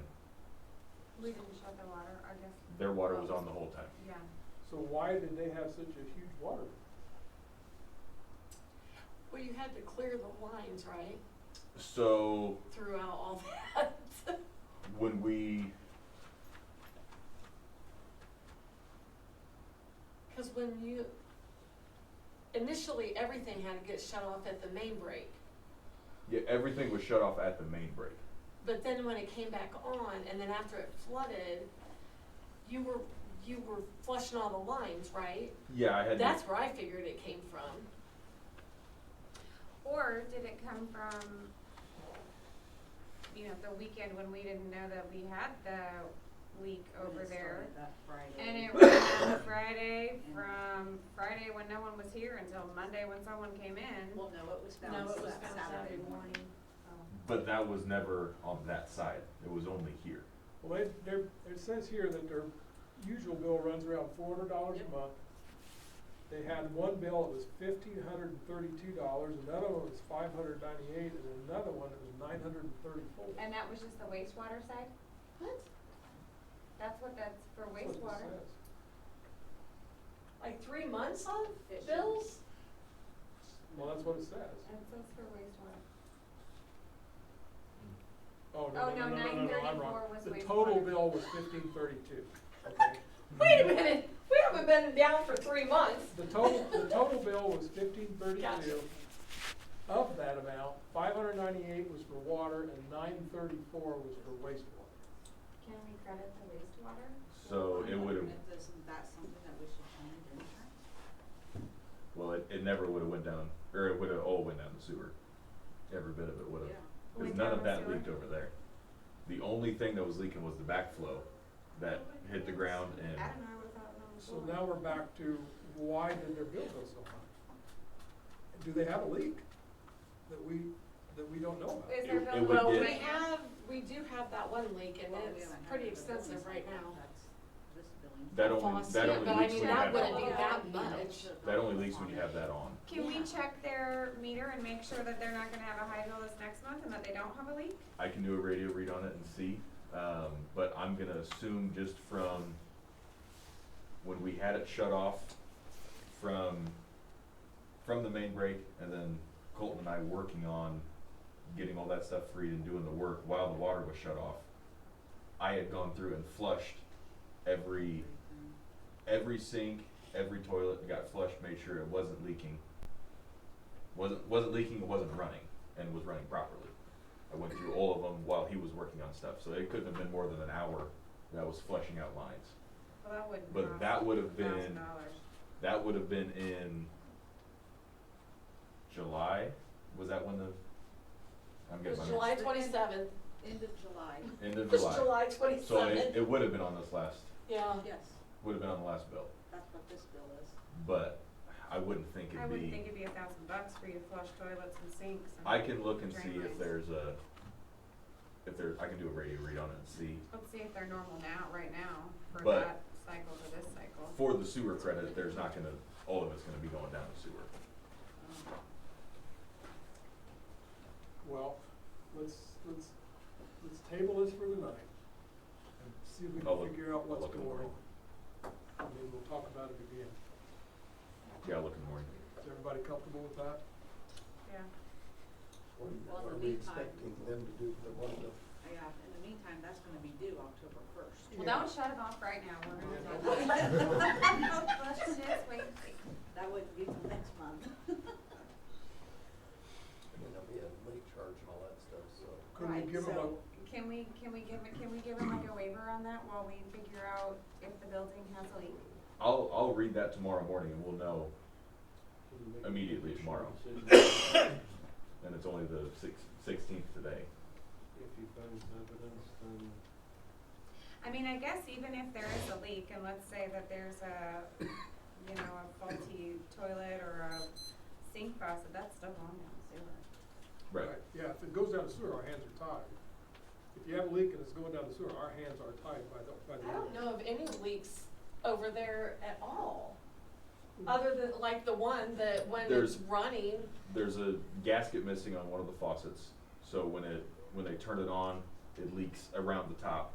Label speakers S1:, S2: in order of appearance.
S1: with the water, I guess.
S2: Their water was on the whole time.
S1: Yeah,
S3: So why did they have such a huge water?
S4: Well, you had to clear the lines, right,
S2: So
S4: throughout all that.
S2: when we,
S4: Because when you, initially, everything had to get shut off at the main break.
S2: yeah, everything was shut off at the main break.
S4: But then when it came back on, and then after it flooded, you were, you were flushing all the lines, right?
S2: Yeah, I had. to-
S4: That's where I figured it came from.
S1: or did it come from, you know, the weekend when we didn't know that we had the leak over there? And it was on Friday from Friday when no one was here until Monday when someone came in. Um,
S5: Well, no, it was found
S4: No, it was
S5: Sa-
S4: found Saturday morning.
S2: But that was never on that side. It was only here.
S3: Well, it, their, it says here that their usual bill runs around four hundred dollars
S4: Yep.
S3: a month. They had one bill that was fifteen hundred and thirty-two dollars, another one was five hundred ninety-eight, and another one that was nine hundred and thirty-four.
S1: And that was just the wastewater side?
S4: What?
S1: That's what that's for wastewater?
S4: Like three months on
S5: It should-
S4: bills?
S3: Well, that's what it says.
S1: That's what's for wastewater.
S3: Oh,
S1: Oh,
S3: no, no, no, no, no,
S1: no,
S3: no, I'm
S1: 934
S3: wrong.
S1: was
S3: The
S1: wastewater.
S3: total bill was fifteen thirty-two, okay?
S4: Wait a minute, we haven't been down for three months.
S3: The total, the total bill was fifteen thirty-two.
S4: Gotcha.
S3: Of that amount, five hundred ninety-eight was for water and nine thirty-four was for wastewater.
S1: Can we credit the wastewater?
S2: So it would have,
S5: Um, Isn't that something that we should change in insurance?
S2: well, it, it never would have went down, or it would have all went down the sewer. Every bit of it would have. Because
S1: Went
S2: none
S1: down
S2: of
S1: the
S2: that
S1: sewer?
S2: leaked over there. The only thing that was leaking was the backflow that hit the ground and
S5: I don't know, I thought it was.
S3: So now we're back to why did their bill go so high? Do they have a leak that we, that we don't know about?
S1: Is
S2: It-
S1: there
S2: it
S1: bill?
S2: would
S4: Well,
S2: get-
S4: we have, we do have that one leak and
S5: Well, we
S4: it's
S5: haven't had
S4: pretty
S5: it, but this
S4: extensive
S5: is-
S4: right now.
S5: that's This billing.
S2: that only,
S4: Faucet,
S2: that only
S4: but I
S2: leaks
S4: mean,
S2: when you
S4: that
S2: have that
S4: wouldn't be
S2: on.
S4: that
S5: Yeah.
S4: much.
S2: That only leaks when you have that on.
S1: Can we
S4: Yeah.
S1: check their meter and make sure that they're not gonna have a high bill this next month and that they don't have a leak?
S2: I can do a radio read on it and see, um, but I'm gonna assume just from when we had it shut off from, from the main break and then Colton and I working on getting all that stuff freed and doing the work while the water was shut off. I had gone through and flushed every, every sink, every toilet got flushed, made sure it wasn't leaking. Wasn't, wasn't leaking, it wasn't running and was running properly. I went through all of them while he was working on stuff, so it couldn't have been more than an hour that I was fleshing out lines.
S1: Well, that wouldn't
S2: But
S1: cost
S2: that would have
S1: $1,000.
S2: been that would have been in July. Was that when the I'm
S4: It was
S2: getting my
S4: July twenty-seventh,
S5: End of July,
S2: end
S4: it
S2: of
S4: was
S2: July.
S4: July
S2: So it,
S4: twenty-seventh,
S2: it would have been on this last
S4: yeah.
S5: yes,
S2: would have been on the last bill,
S5: that's what this bill is.
S2: but I wouldn't think
S1: I
S2: it'd
S1: wouldn't
S2: be.
S1: think it'd be a thousand bucks for you to flush toilets and sinks. and-
S2: I can look and
S1: Drain
S2: see
S1: lines.
S2: if there's a if there's I can do a radio read on it and see.
S1: Let's see if they're normal now, right now, for
S2: But-
S1: that cycle to this cycle.
S2: For the sewer credit, there's not gonna all of it's gonna be going down the sewer.
S5: Um,
S3: Well, let's, let's, let's table this for the night and see if we
S2: I'll look-
S3: can figure out
S2: I'll
S3: what's
S2: look in
S3: going
S2: the
S3: on.
S2: morning.
S3: And then we'll talk about it again.
S2: Yeah, I'll look in the morning.
S3: Is everybody comfortable with that?
S1: Yeah.
S5: Well, in
S6: Are
S5: the
S6: we
S5: meantime-
S6: expecting them to do the one bill?
S5: Yeah, in the meantime, that's gonna be due October first.
S1: Well, don't shut it off right now, we're gonna.
S3: Yeah.
S1: do it. Flush it this way.
S5: That wouldn't be till next month.
S6: And then there'll be a late charge and all that stuff, so.
S3: Could we
S5: Right,
S3: give them a,
S5: so-
S1: Can we, can we give, it- can we give them like a waiver on that while we figure out if the building has a leak?
S2: I'll I'll read that tomorrow morning and we'll know Immediately tomorrow. and it's only the six, sixteenth today.
S6: If he finds evidence, then.
S1: I mean, I guess even if there is a leak, and let's say that there's a, you know, a faulty toilet or a sink faucet, that's still going down the sewer.
S2: Right.
S3: Right, yeah, if it goes down the sewer, our hands are tied. If you have a leak and it's going down the sewer, our hands are tied by the, by the.
S4: I don't
S3: ordinance.
S4: know of any leaks over there at all, other than like the one that when it's
S2: There's-
S4: running,
S2: There's a gasket missing on one of the faucets, so when it when they turn it on, it leaks around the top.